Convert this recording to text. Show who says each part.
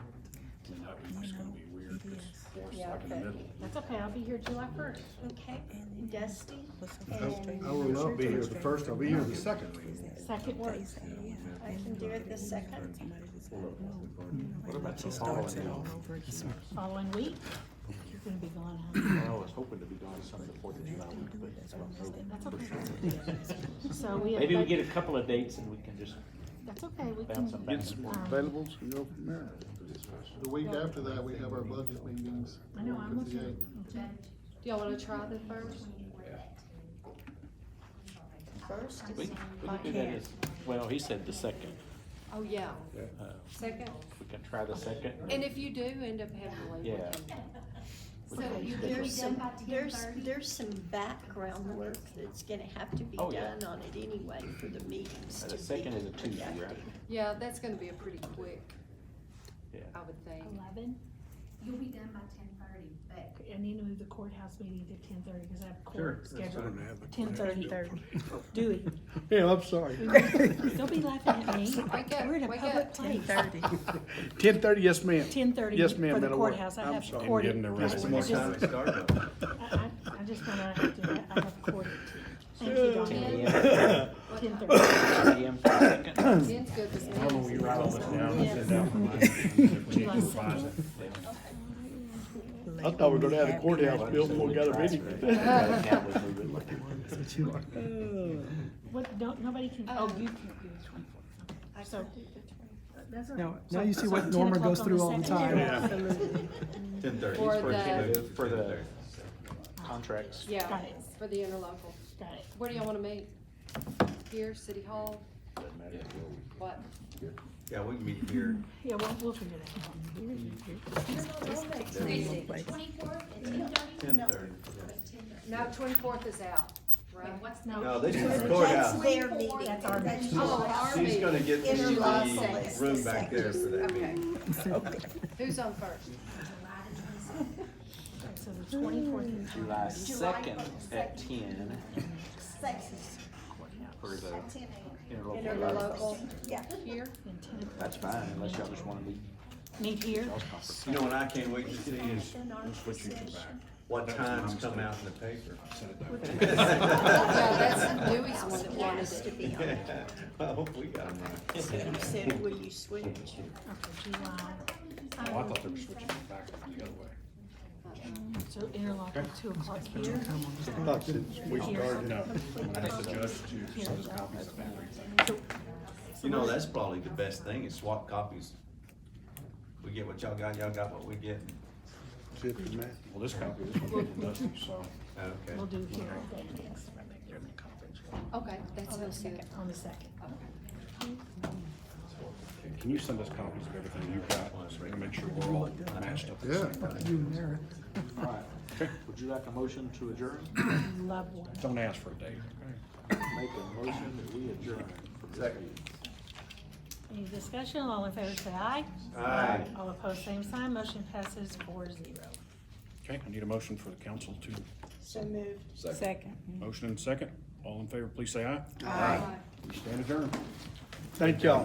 Speaker 1: We're
Speaker 2: Yeah,
Speaker 1: stuck in the
Speaker 2: okay.
Speaker 1: middle.
Speaker 3: That's okay, I'll be here July first.
Speaker 4: Okay,
Speaker 5: And then
Speaker 4: Dusty,
Speaker 5: what's the
Speaker 4: I-
Speaker 5: first
Speaker 1: I will not be here the first, I'll be here the second.
Speaker 3: Second works.
Speaker 4: I can do it the second.
Speaker 5: What about the following off?
Speaker 3: Following week, you're gonna be gone, huh?
Speaker 6: I was hoping to be gone Sunday, the Fourth of July, but
Speaker 3: That's okay. So we have.
Speaker 7: Maybe we
Speaker 3: budget-
Speaker 7: get a couple of dates and we can just
Speaker 3: That's okay, we
Speaker 7: bounce them
Speaker 3: can, um,
Speaker 7: back.
Speaker 1: Get some more availables and go from there.
Speaker 6: The week after that, we have our budget meetings.
Speaker 3: I know, I'm with you.
Speaker 6: 58.
Speaker 3: Okay.
Speaker 8: Do y'all wanna try the first?
Speaker 4: First
Speaker 7: We,
Speaker 4: is
Speaker 7: we can do that as, well, he said the second.
Speaker 8: Oh, yeah,
Speaker 7: Uh,
Speaker 8: second,
Speaker 7: We can try the second.
Speaker 8: and if you do end up having to leave. we
Speaker 7: Yeah.
Speaker 8: can-
Speaker 7: We
Speaker 8: So
Speaker 7: can
Speaker 8: you
Speaker 7: schedule-
Speaker 4: There's some, there's, there's some background work that's gonna have to be
Speaker 7: Oh, yeah.
Speaker 4: done on it anyway for the meetings
Speaker 7: Uh,
Speaker 4: to
Speaker 7: The
Speaker 4: be
Speaker 7: second is a Tuesday, right?
Speaker 4: productive.
Speaker 8: Yeah, that's gonna be a pretty quick,
Speaker 7: Yeah.
Speaker 8: I would think.
Speaker 3: Eleven,
Speaker 9: You'll be done by ten thirty, but
Speaker 3: I need to move the courthouse meeting to ten thirty, cause I have court scheduled.
Speaker 5: Ten thirty, thirty. Dewey,
Speaker 1: Yeah, I'm sorry.
Speaker 3: Don't be laughing at me.
Speaker 8: Wake up,
Speaker 3: We're in a
Speaker 8: wake up.
Speaker 3: public
Speaker 5: ten
Speaker 3: place.
Speaker 5: thirty.
Speaker 1: Ten thirty, yes, ma'am.
Speaker 3: Ten thirty
Speaker 1: Yes, ma'am,
Speaker 3: for the
Speaker 1: that'll work.
Speaker 3: courthouse, I
Speaker 1: I'm
Speaker 3: have
Speaker 1: sorry.
Speaker 3: court.
Speaker 1: Getting
Speaker 3: at-
Speaker 1: the
Speaker 3: I
Speaker 1: rest
Speaker 3: just-
Speaker 1: of my time.
Speaker 3: I, I, I just wanna have to, I have court at ten. Thank you, Donna.
Speaker 7: Ten AM,
Speaker 8: Ten
Speaker 3: Ten thirty.
Speaker 7: ten AM for the second.
Speaker 8: Ten's uh, good with me.
Speaker 3: July second.
Speaker 1: I thought we were gonna have the courthouse built before we got a meeting.
Speaker 7: Now we move it like
Speaker 3: What, don't, nobody can, oh, you can't do the twenty-fourth.
Speaker 4: I
Speaker 3: So-
Speaker 4: can do the twenty.
Speaker 3: That's all
Speaker 10: Now,
Speaker 3: right.
Speaker 10: now
Speaker 3: So-
Speaker 10: you see
Speaker 3: so
Speaker 10: what
Speaker 3: 10
Speaker 10: Norma
Speaker 3: o'clock
Speaker 10: goes
Speaker 3: on
Speaker 10: through
Speaker 3: the
Speaker 10: all the
Speaker 3: second?
Speaker 10: time.
Speaker 1: Yeah.
Speaker 5: Absolutely.
Speaker 6: Ten thirty.
Speaker 8: For the,
Speaker 6: For the.
Speaker 7: contracts.
Speaker 8: yeah,
Speaker 3: Got it.
Speaker 8: for the interlocal.
Speaker 3: Got it.
Speaker 8: Where do y'all wanna meet? Here, City Hall? What?
Speaker 6: Yeah, we can meet here.
Speaker 3: Yeah, we'll, we'll figure that out.
Speaker 9: twenty-fourth at ten thirty?
Speaker 6: Ten thirty.
Speaker 8: No, twenty-fourth is out, right?
Speaker 9: What's
Speaker 3: No.
Speaker 6: No, they
Speaker 4: So
Speaker 6: should record
Speaker 4: That's
Speaker 6: out.
Speaker 4: their meeting.
Speaker 3: That's our meeting.
Speaker 8: Oh, our
Speaker 6: She's
Speaker 8: meeting,
Speaker 6: gonna get the
Speaker 4: Interlocal
Speaker 6: the
Speaker 4: is the
Speaker 6: room back there for that
Speaker 8: okay.
Speaker 6: meeting.
Speaker 8: Who's on first?
Speaker 9: July the twenty-second.
Speaker 3: Okay, So the twenty-fourth is
Speaker 7: July second at ten for the
Speaker 9: Ten AM.
Speaker 7: interlocal.
Speaker 8: Interlocal,
Speaker 4: Yeah.
Speaker 8: here?
Speaker 3: in ten o'clock.
Speaker 7: That's fine, unless y'all just wanna meet
Speaker 3: Meet here,
Speaker 1: Oh.
Speaker 7: y'all's conference.
Speaker 6: You know what I can't wait to see is what times come out in the paper.
Speaker 8: Yeah, that's Dewey's one that wanted
Speaker 4: Has
Speaker 8: it.
Speaker 4: to be on. it.
Speaker 6: I hope we got 'em right.
Speaker 4: You said, will you switch?
Speaker 3: okay, July,
Speaker 1: Oh, I thought they were switching it back the other way.
Speaker 8: Uh,
Speaker 3: so interlock at two o'clock here.
Speaker 1: We
Speaker 3: Here.
Speaker 1: started, no, when I asked the judge to send us copies of everything.
Speaker 6: You know, that's probably the best thing is swap copies. We get what y'all got, y'all got what we get.
Speaker 1: See if it's matched. Well, this copy, this one didn't dust, so.
Speaker 6: Okay.
Speaker 3: We'll do here all day next,
Speaker 8: Okay, that sounds good.
Speaker 3: on the second.
Speaker 1: Can you send us copies of everything you've got, and make sure we're all matched up? Yeah.
Speaker 7: All right. Would you like a motion to adjourn?
Speaker 3: Love one.
Speaker 1: Don't ask for a date.
Speaker 7: Make a motion that we adjourn.
Speaker 6: Second.
Speaker 3: Any discussion, all in favor say aye.
Speaker 6: Aye.
Speaker 3: All opposed, same sign, motion passes four zero.
Speaker 1: Okay, I need a motion for the council to,
Speaker 4: So moved.
Speaker 5: Second.
Speaker 1: motion and second. All in favor, please say aye.
Speaker 4: Aye.
Speaker 1: We stand adjourned. Thank y'all.